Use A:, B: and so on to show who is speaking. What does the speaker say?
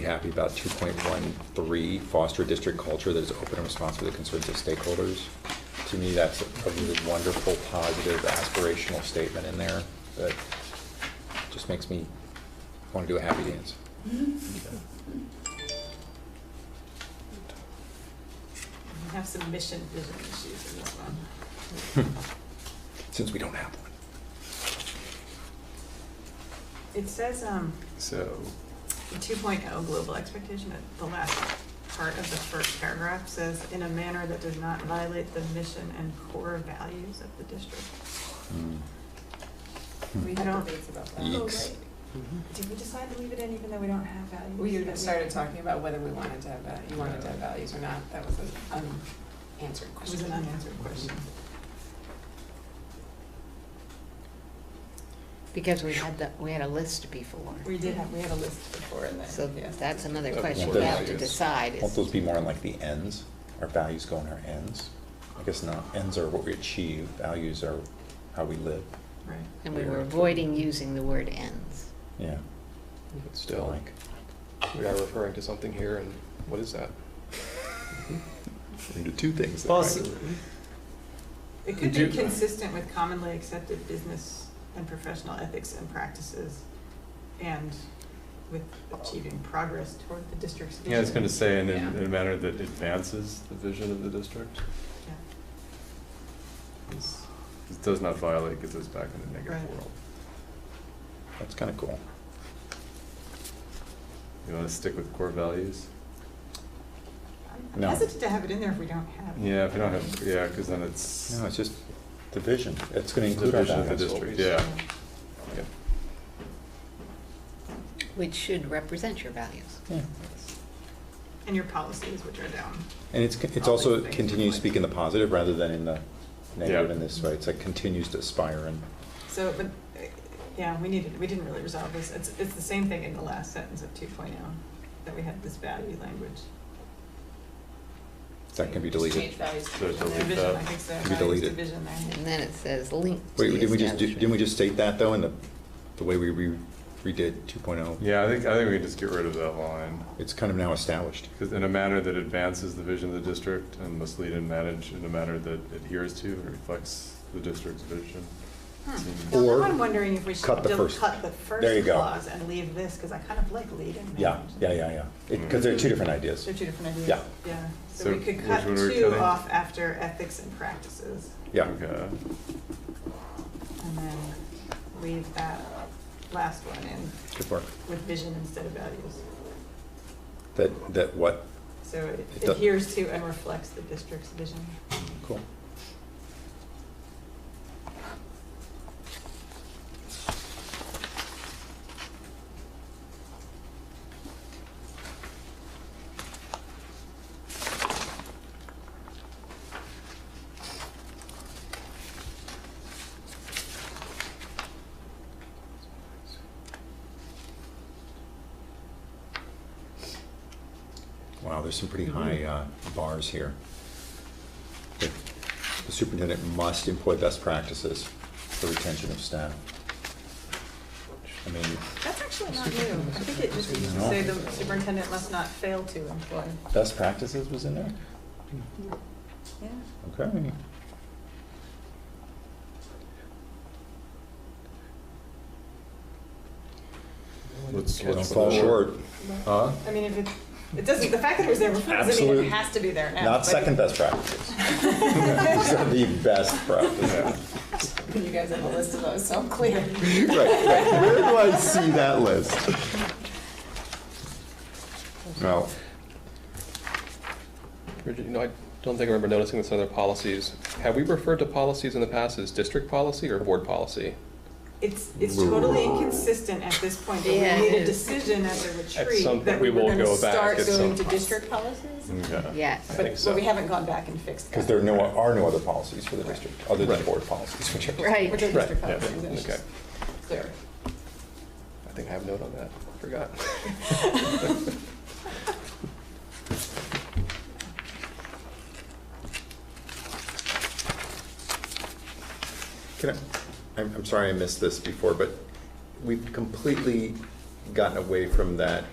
A: happy about 2.13, foster district culture that is open and responsive to the concerns of stakeholders. To me, that's a really wonderful, positive, aspirational statement in there that just makes me want to do a happy dance.
B: We have some mission vision issues in this one.
A: Since we don't have one.
B: It says, um,
C: So,
B: two oh, global expectation, but the last part of the first paragraph says, in a manner that does not violate the mission and core values of the district.
A: Hmm.
D: We
B: I don't-
D: had debates about that.
A: Ye-
E: Oh,
A: Yikes.
E: right.
B: Did we decide to leave it in even though we don't have values?
D: Mm-hmm. We
B: That
D: even started talking about whether we wanted to have, val- you wanted to have values or not, that was an unanswered
B: It was
D: question.
B: an unanswered question.
E: Because we had the, we had a list before,
B: We did have, we had a list.
D: Before and then,
E: so
D: yeah.
E: that's another
C: Of
E: question
A: what
E: we have to
C: values.
E: decide
A: Won't
E: is,
A: those be more on like the ends? Our values go on our ends? I guess not. Ends are what we achieve, values are how we live.
B: Right.
E: and we were avoiding using the word ends.
A: Yeah.
C: but still,
A: like,
C: we are referring to something here, and what is that?
A: we do two things. there, right?
C: Possibly.
B: It could
C: Do-
B: be consistent with commonly accepted business and professional ethics and practices and with achieving progress toward the district's vision.
F: Yeah, I was gonna say, in, in
D: Yeah.
F: in a manner that advances the vision of the district,
B: Yeah.
F: It's- it does not violate, gets us back in the
B: Right.
F: negative world.
A: That's kind of cool.
F: You wanna stick with core values?
B: I'm- I'm
A: No.
B: hesitant to have it in there if we don't have.
F: Yeah, if you don't have, yeah, cause then it's.
A: No, it's just the vision. It's going to
F: the
A: include our
F: vision of the
A: values.
F: district.
A: always.
F: Yeah, yeah.
E: Which should represent your values.
A: Yeah.
B: And your policies, which are down.
A: And it's, con- it's
B: All
A: also
B: these things
A: continues to
B: reflect-
A: speak in the positive rather than in the negative
F: Yeah.
A: in this, right? It's like continues to aspire and,
B: So, but, uh, yeah, we needed, we didn't really resolve this. It's, it's the same thing in the last sentence of two oh, that we had this value language.
A: that can be
D: Just
A: deleted.
D: change values to
F: So
D: vision
F: delete
D: there.
B: Division,
F: that.
B: I think so,
A: Can be
B: values
A: deleted.
B: division there.
E: And then it says link to
A: Wait,
E: the
A: didn't we just, do- didn't we
E: establishment.
A: just state that though in the, the way we re- redid 2.0?
F: Yeah, I think, I think we can just get rid of that line,
A: It's kind of now established.
F: cause in a manner that advances the vision of the district and must lead and manage in a manner that adheres to and reflects the district's vision.
B: Hmm.
F: Seems-
B: Now,
A: Or
B: now I'm wondering if we should
A: cut the
B: del-
A: first-
B: cut the
A: there you
B: first
A: go.
B: clause and leave this, because I kind of like lead and manage.
A: Yeah, yeah, yeah, yeah. Because they're two different ideas.
B: They're two different ideas.
A: Yeah.
B: Yeah, so
F: So
B: we could
F: which
B: cut
F: one are we
B: two
F: cutting?
B: off after ethics and practices,
A: Yeah.
F: Okay,
B: and then leave that last one in
A: Good work.
B: with vision instead of values.
A: That, that what?
B: So
A: It
B: it
A: do-
B: adheres to and reflects the district's vision.
A: Cool. Wow, there's some pretty high uh, bars here. The the superintendent must employ best practices for retention of staff. I mean,
B: That's actually not new. I think it just used to
A: No.
B: say the superintendent must not fail to employ.
A: best practices was in there?
B: Yeah.
A: Okay.
F: let's,
A: Don't
F: let's.
A: fall short.
F: Huh?
B: I mean, if it, it doesn't, the fact that it was there before doesn't mean
A: Absolute-
B: it has to be there now.
A: Not
B: but-
A: second best practices. These are the best practices.
F: Yeah.
D: You guys have a list of those, so I'm clear.
A: Right, right. Where do I see that list? Well,
C: Bridget, you know, I don't think I remember noticing this in other policies. Have we referred to policies in the past as district policy or board policy?
B: It's, it's totally inconsistent at this point, but we
E: Yeah, it
B: made a
E: is.
B: decision at the
C: At
B: retreat
C: some
B: that
C: point,
B: we
C: we
B: were
C: will
B: gonna
C: go back
B: start
C: at
B: going
C: some
B: to
C: point.
B: district policies.
F: Okay.
E: Yes,
C: I think
B: But,
C: so.
B: but we haven't gone back and fixed that.
A: because there are no, are no other policies for the district, other than board policies, which are.
E: right.
D: Which are
C: Right,
D: district
C: yeah,
D: policies, it's
C: okay.
D: just clear.
C: I think I have a note on that. I Forgot.
A: Can I, I'm, I'm sorry I missed this before, but we've completely gotten away from that